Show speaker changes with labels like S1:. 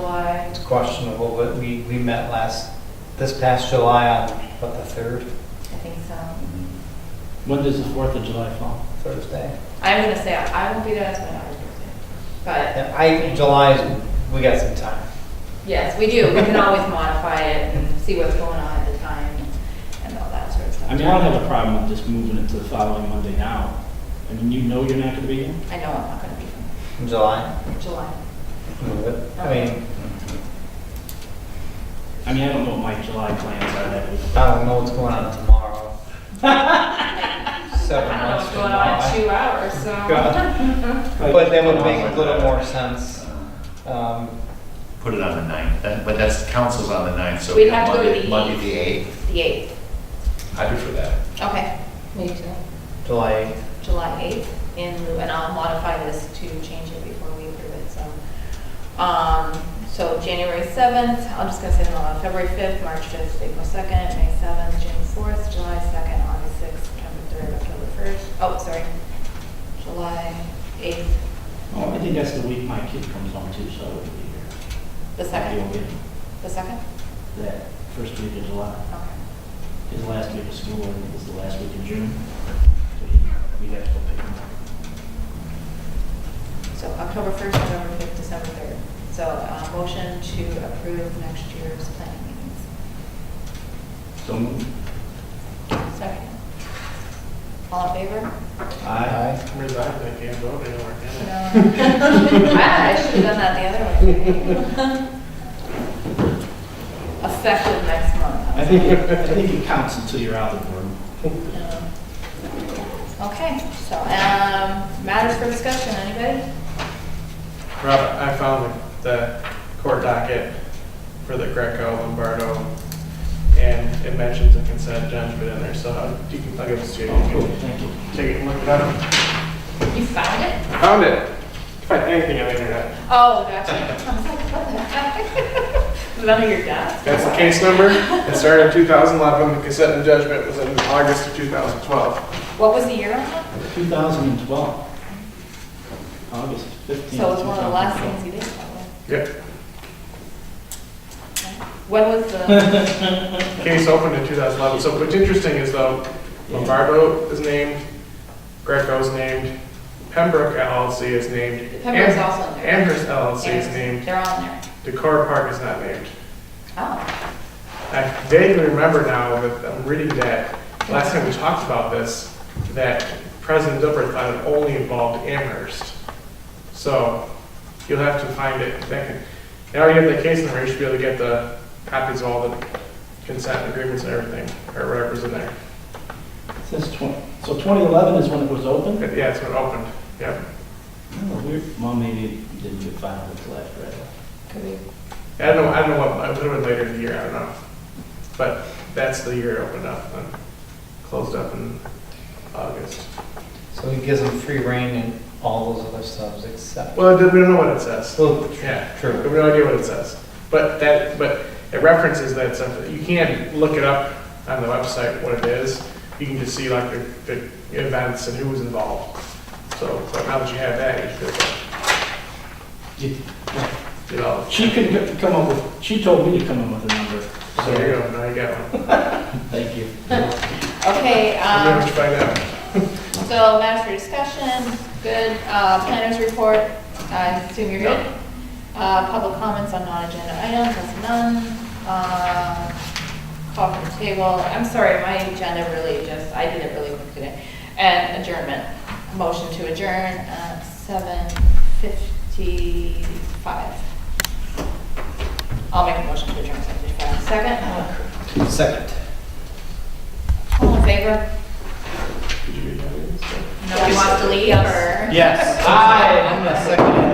S1: July.
S2: It's questionable, but we, we met last, this past July on, what, the third
S1: I think so.
S3: When does the Fourth of July fall?
S2: Thursday?
S1: I was gonna say, I won't be there, that's my daughter's birthday. But,
S2: And I, July, is- we got some time.
S1: yes, we do, we can always modify it and see what's going on at the time and all that sort of stuff.
S3: I mean, I don't have a problem with just moving it to the following Monday now. I mean, you know you're not gonna be here.
S1: I know I'm not gonna be from
S2: In July,
S1: July.
S2: move it. I mean,
S3: I mean, I don't know what my July plans are that week.
S2: I don't know what's going on tomorrow. Seven
S1: I don't know
S2: months
S1: what's
S2: from
S1: going on in
S2: now.
S1: two hours, so.
S2: God. But that would make a little more sense. Um,
S4: Put it on the ninth, That- but that's, council's on the ninth, so.
S1: We'd have to go to the
S4: Monday- Monday,
S1: eighth.
S4: the eighth,
S1: The eighth,
S4: I'd be for that.
S1: okay. Me too.
S2: July eighth.
S1: July 8th in lieu, and I'll modify this to change it before we approve it, so. Um, so January 7th, I'm just gonna say them all out, February 5th, March 5th, April 2nd, May 7th, June 4th, July 2nd, August 6th, September 3rd, October 1st, oh, sorry, July 8th,
S3: Oh, I think that's the week my kid comes home too, so I would be here.
S1: the
S3: You'll
S1: 2nd,
S3: get
S1: the 2nd?
S3: that first week of July.
S1: Okay.
S3: His last week of school and is the last week of June. So he- We'd have to go pick him up.
S1: So October 1st, November 5th, December 3rd. So, uh, motion to approve next year's planning meetings.
S3: So moved.
S1: Second. All in favor?
S2: Aye.
S5: Resigned, I can't vote anymore, can I?
S1: I should have done that the other way. Effective next
S3: I
S1: month.
S3: think, it- I think it counts until you're out of the board.
S1: Okay, so, um, matters for discussion, anybody?
S5: Rob, I found the- the court docket for the Greco Lombardo, and it mentions a consent judgment in there, so how- you can plug it to you. You
S3: Oh, Thank you.
S5: can Take it and look it up.
S1: You found it?
S5: I Found it. You can Find anything on the internet.
S1: Oh, gotcha. I was like, what the heck? Was it under your desk?
S5: That's the case number. It started in 2011, the consent and judgment was in August of 2012.
S1: What was the year on that?
S3: 2012, August 15th.
S1: So it was one of the last
S3: 2012.
S1: things you did, probably.
S5: Yep.
S1: When was the,
S5: Case opened in 2011, so what's interesting is though, Lombardo is named, Greco's named, Pembroke LLC is named.
S1: Pembroke's also in there.
S5: Amherst LLC is named,
S1: They're on there.
S5: Decor Park is not named.
S1: Oh,
S5: I vaguely remember now that I'm reading that, last time we talked about this, that President Dupper thought it only involved Amherst. So you'll have to find it. That can- Now you have the case number, you should be able to get the copies of all the consent agreements and everything, or whatever's in there.
S3: Since 20, so 2011 is when it was opened?
S5: But Yeah, it's when it opened, yep.
S3: Oh, weird. Well, maybe it didn't get filed until after I left.
S1: could be.
S5: I don't know, I don't know what, I would have been later in the year, I don't know. But that's the year it opened up and closed up in August.
S2: So he gives them free reign and all those other subs except,
S5: Well, we don't know what it says.
S2: well,
S5: Yeah, I
S2: true.
S5: have no idea what it says. But that, but it references that stuff. You can't look it up on the website what it is. You can just see like the, the events and who was involved. So, but now that you have that, you could, you know.
S3: She could c- come up with, she told me to come up with a number.
S5: So there you go, now you got one.
S3: Thank you.
S1: Okay,
S5: I'm
S1: um.
S5: gonna find out.
S1: So matters for discussion, good, uh, planners report, I assume you're good. Uh, public comments on non-agenda items, that's none. Uh, Call for table, I'm sorry, my agenda really just, I did it really quick today. And adjournment, motion to adjourn at seven fifty-five. I'll make a motion to adjourn at seven fifty-five, second,
S2: Second.
S1: all in favor?
S5: Did you read that?
S1: Nobody wants to leave or?
S3: Yes.
S2: Aye. I'm the second.